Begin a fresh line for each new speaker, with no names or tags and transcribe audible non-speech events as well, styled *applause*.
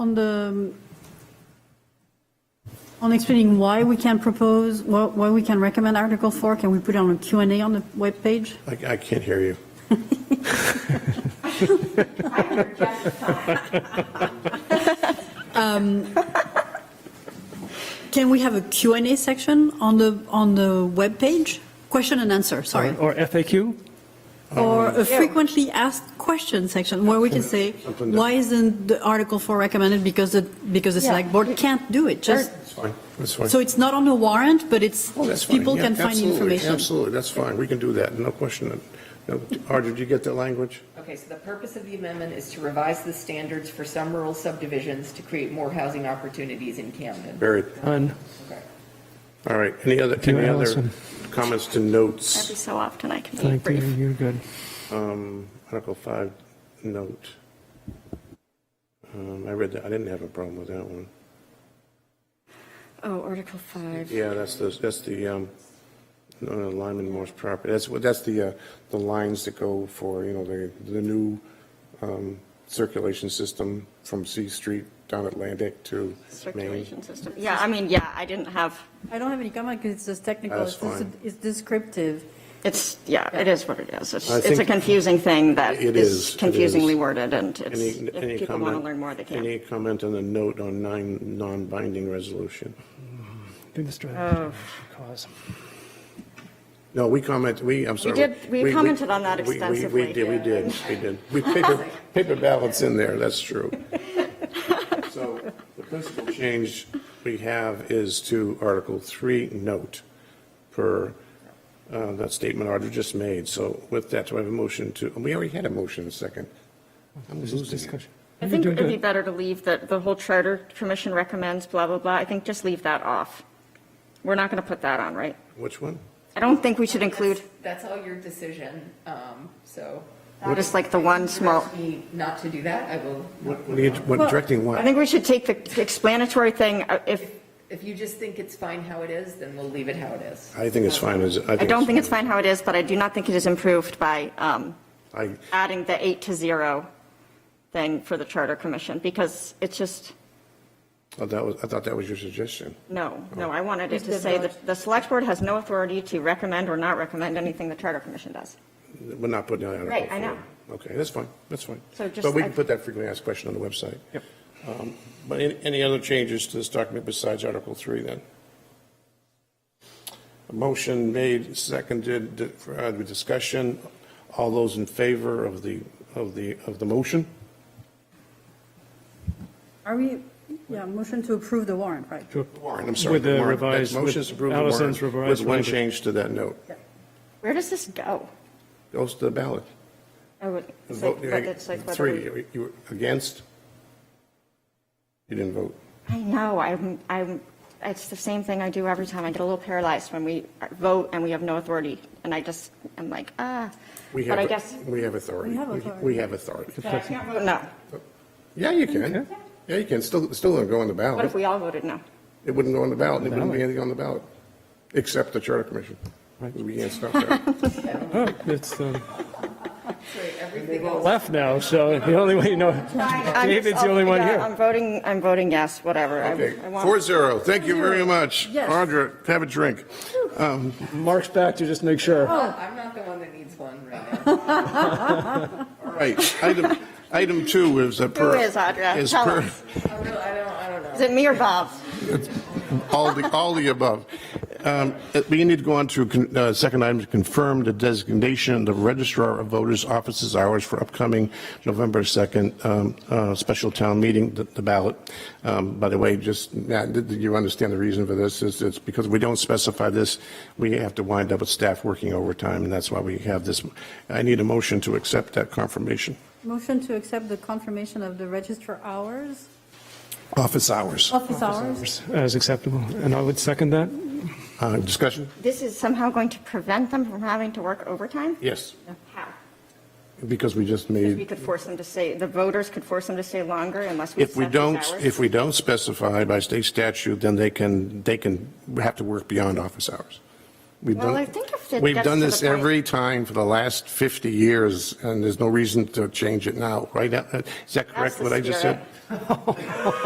On the, on explaining why we can propose, why why we can recommend Article 4, can we put it on a Q and A on the webpage?
I, I can't hear you.
Can we have a Q and A section on the, on the webpage? Question and answer, sorry.
Or FAQ?
Or a frequently asked question section where we can say,
Something that-
why isn't the Article 4 recommended because the, because the
Yeah.
select board can't do it? Just,
It's fine, that's fine.
so it's not on the warrant, but it's,
Oh, that's fine.
people
Yeah,
can find
absolutely,
information.
Absolutely, that's fine, we can do that, no question. No, Audra, did you get that language?
Okay, so the purpose of the amendment is to revise the standards for some rural subdivisions to create more housing opportunities in Camden.
Very,
None.
Okay.
all right, any other,
Thank you,
any other
Allison.
comments to notes?
Every so often I can be
Thank you,
brief.
you're good.
Um, Article 5, note. Um, I read that, I didn't have a problem with that one.
Oh, Article 5.
Yeah, that's the, that's the, um, no, no, Lyman Morse property, that's, what that's the, uh, the lines that go for, you know, the, the new, um, circulation system from C Street down Atlantic to Main.
Circulation system. Yeah, I mean, yeah, I didn't have,
I don't have any comment because it's just technical.
That's
It's just-
fine.
It's descriptive.
it's, yeah, it is what it is. It's
I
it's a
think-
confusing thing that
It is,
is
it is.
confusingly worded, and it's,
Any, any
if people want to
comment?
learn more, they
Any
can.
comment on the note on nine, non-binding resolution?
Do the strategy. Cause.
No, we comment, we, I'm sorry.
did- we commented on that
we- we-
extensively
We did, we
here.
did, we did. We paper, paper ballots in there, that's
*laughs*
true. So the principal change we have is to Article 3 note per uh, that statement Audra just made. So with that, do I have a motion to, oh, we already had a motion and a second. I'm losing it.
discussion.
I
You're
think
doing
it'd be
good.
better to leave that the whole Charter Commission recommends blah, blah, blah. I think just leave that off. We're not going to put that on, right?
Which one?
I don't think we should include,
That's all your decision, um, so.
just like the one small,
Direct me Not to do that, I will,
What, what are you, what,
Well,
directing
I
what?
think we should take the explanatory thing, uh, if,
if you just think it's fine how it is, then we'll leave it how it is.
I think it's fine as, I
I don't think it's
fine.
fine how it is, but I do not think it is improved by um,
I,
adding the eight to zero thing for the Charter Commission, because it's just,
oh, that was, I thought that was your suggestion.
no, no, I wanted it to say that the Select Board has no authority to recommend or not recommend anything the Charter Commission does.
We're not putting that out.
Right, I know.
Okay, that's fine, that's fine.
So just-
But we can
I-
put that frequently asked question on the website.
Yep.
Um, But any, any other changes to this document besides Article 3 then? A motion made, seconded, di- for uh, the discussion. All those in favor of the, of the, of the motion?
Are we, yeah, motion to approve the warrant, right?
Warren, I'm sorry.
With the
warrant. That
revised- with
Motion's approved. the
Allison's
warrant
revised
With one
language.
change to that note.
Where does this go?
Goes to the ballot.
I would-
The
it's like-
vote-
but it's like whether
Three,
we-
you- you were against? You didn't vote.
I know, I'm, I'm, it's the same thing I do every time. I get a little paralyzed when we vote and we have no authority, and I just, I'm like, ah.
We
But I
have,
guess,
we have authority.
We have
We-
authority.
We have authority.
but I can't vote no.
Yeah, you can. Yeah, you can. Still, still wouldn't go on the
What if
ballot.
we all voted no?
It wouldn't go on the ballot. It wouldn't be
Ballot.
anything on the ballot, except the Charter Commission. We can't
*laughs*
stop that.
Oh, It's um,
So everything else.
left now, so the only way you know,
I'm just-
David's the only one
yeah,
here.
I'm voting, I'm voting yes, whatever. I-
Okay,
I want-
four zero. Thank you very much.
Yes.
Audra, have a drink. Um,
Mark's back to just make sure.
I'm not the one that needs one right
*laughs*
now.
All right, item, item two is a per.
is, Audra?
is
Tell
per-
us.
I really- I don't, I don't know.
Is it me or Bob?
All the, all the above. Um, We need to go on to con- uh, second item, to confirm the designation of the registrar of voters' offices hours for upcoming November 2nd um, uh, special town meeting, the the ballot. Um, By the way, just, Matt, did did you understand the reason for this? It's it's because we don't specify this, we have to wind up with staff working overtime, and that's why we have this. I need a motion to accept that confirmation.
Motion to accept the confirmation of the register hours,
Office hours.
office hours.
As acceptable, and I would second that.
Uh, Discussion?
This is somehow going to prevent them from having to work overtime?
Yes,
How?
because we just made.
Because we could force them to stay, the voters could force them to stay longer unless we
If we
accept these
don't,
hours?
if we don't specify by state statute, then they can, they can have to work beyond office hours. We've
Well,
done-
I think if it
We've
gets
done
to
this
the point-
every time for the last 50 years, and there's no reason to change it now, right? Is that
That's
correct,
the
what I just said?
spirit.